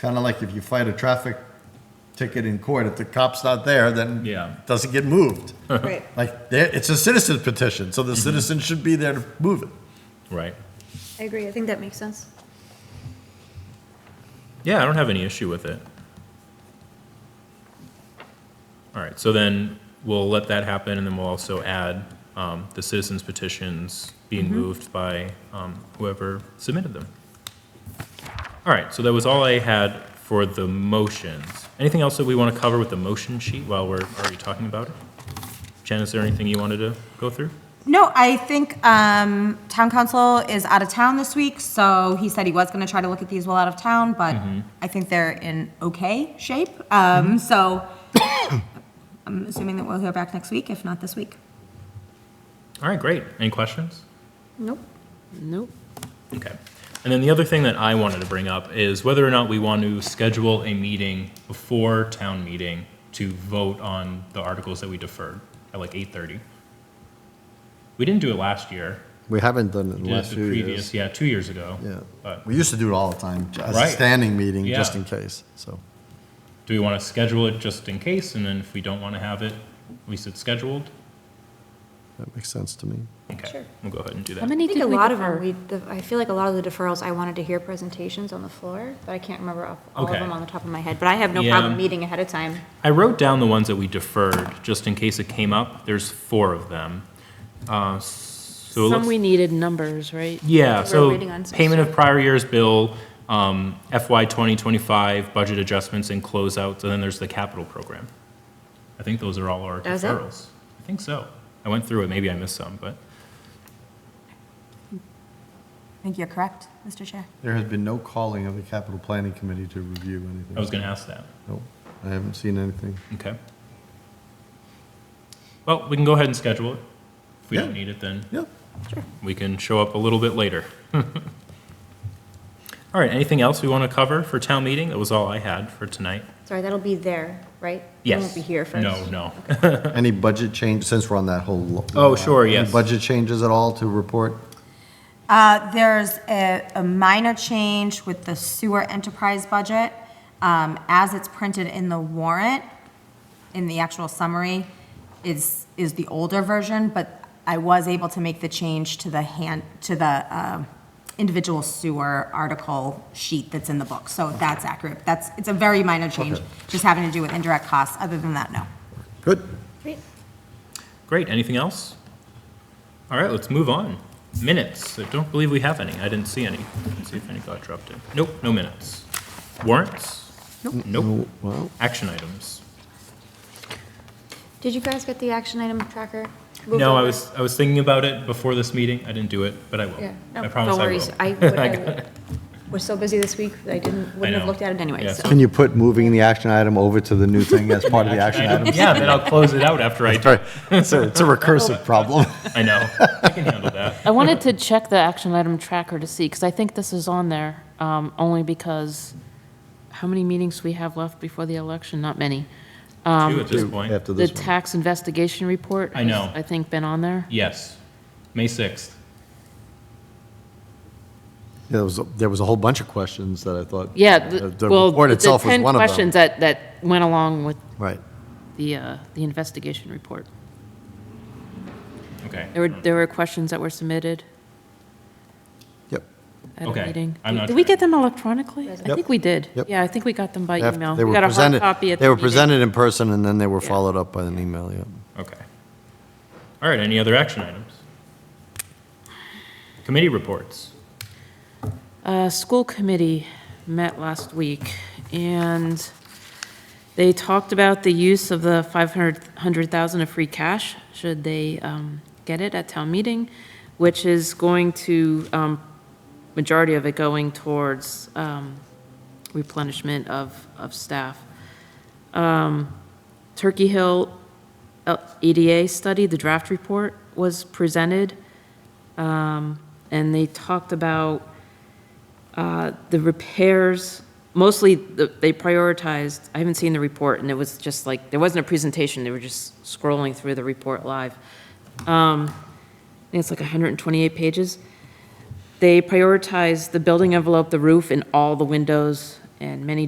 kind of like if you fight a traffic ticket in court, if the cop's not there, then Yeah. it doesn't get moved. Right. Like, there- it's a citizen petition, so Mm-hmm. the citizen should be there to move it. Right. I agree. I think that makes sense. Yeah, I don't have any issue with it. All right, so then we'll let that happen, and then we'll also add um, the citizens petitions being moved by um, whoever submitted them. All right, so that was all I had for the motions. Anything else that we want to cover with the motion sheet while we're already talking about it? Jen, is there anything you wanted to go through? No, I think um, town council is out of town this week, so he said he was going to try to look at these while out of town, but I think they're in okay shape. Um, So I'm assuming that we'll hear back next week, if not this week. All right, great. Any questions? Nope. Nope. Okay. And then the other thing that I wanted to bring up is whether or not we want to schedule a meeting before town meeting to vote on the articles that we deferred at like 8:30. We didn't do it last year. We haven't done it in We the did it last the few previous, years. yeah, two years ago. Yeah. But We used to do it all the time, as a Right. standing meeting, just Yeah. in case, so. do we want to schedule it just in case? And then if we don't want to have it, at least it's scheduled? That makes sense to me. Okay, Sure. we'll go ahead and do How that. I many think did a we lot of them, defer? we, the- I feel like a lot of the deferrals, I wanted to hear presentations on the floor, but I can't remember off- all of Okay. them on the top of my head. But I have no Yeah. problem meeting ahead of time. I wrote down the ones that we deferred, just in case it came up. There's four of them. Uh, So it Some looks we needed numbers, right? Yeah, We're so waiting on some payment of prior year's bill, um, FY 2025, budget adjustments and closeouts, and then there's the capital program. I think those are all our That was it? deferrals. I think so. I went through it, maybe I missed some, but, I think you're correct, Mr. Chair. There has been no calling of the capital planning committee to review anything. I was gonna ask that, Nope, I haven't seen anything. okay. Well, we can go ahead and schedule it. If we Yeah. don't need it, then Yep. we can show up a little bit later. All right, anything else we want to cover for town meeting? That was all I had for tonight. Sorry, that'll be there, right? Yes. It won't be here first. No, no. Any budget change, since we're on that whole. lo- Oh, sure, yes. Any budget changes at all to report? Uh, There's a a minor change with the sewer enterprise budget. Um, As it's printed in the warrant, in the actual summary, is, is the older version, but I was able to make the change to the hand, to the um, individual sewer article sheet that's in the book. So that's accurate. That's, it's a very minor change, just having to do with indirect costs. Other than that, no. Good. Great. Great, anything else? All right, let's move on. Minutes, I don't believe we have any, I didn't see any. Let's see if any got dropped in. Nope, no minutes. Warrants? Nope. Nope. Well, Action items? Did you guys get the action item tracker? We'll No, go I back. was, I was thinking about it before this meeting, I didn't do it, but I will. Yeah. I promise I will. No worries, I, would- I was so busy this week, that I didn't, wouldn't know. have looked at it anyway, Yeah, so. can you put moving the action item over to the new thing as part of the action item? Yeah, then I'll close it out after I do. Sorry, it's a it's a recursive problem. I know, I can handle that. I wanted to check the action item tracker to see, because I think this is on there, um, only because how many meetings we have left before the election? Not many. Two at this point, After The this one. tax investigation report. I know. has, I think been on there. yes. May 6th, There was, there was a whole bunch of questions that I thought. Yeah, The the, the well, report the itself was 10 one of them. questions that, that went along with Right. the, uh, the investigation report. okay. There were, there were questions that were submitted Yep. at Okay, a meeting. I'm not Did we sure. get them electronically? I Yep. think we did. Yep. Yeah, I think we got them by After- email. They We were got a hard presented, copy at the they were meeting. presented in person and then they were followed up by an email, yeah. Okay. All right, any other action items? Committee reports. Uh, School committee met last week, and they talked about the use of the 500,000 of free cash, should they um, get it at town meeting, which is going to, um, majority of it going towards um, replenishment of, of staff. Um, Turkey Hill uh, EDA study, the draft report was presented, um, and they talked about uh, the repairs, mostly, the- they prioritized, I haven't seen the report, and it was just like, there wasn't a presentation, they were just scrolling through the report live. Um, I think it's like 128 pages. They prioritized the building envelope, the roof, and all the windows, and many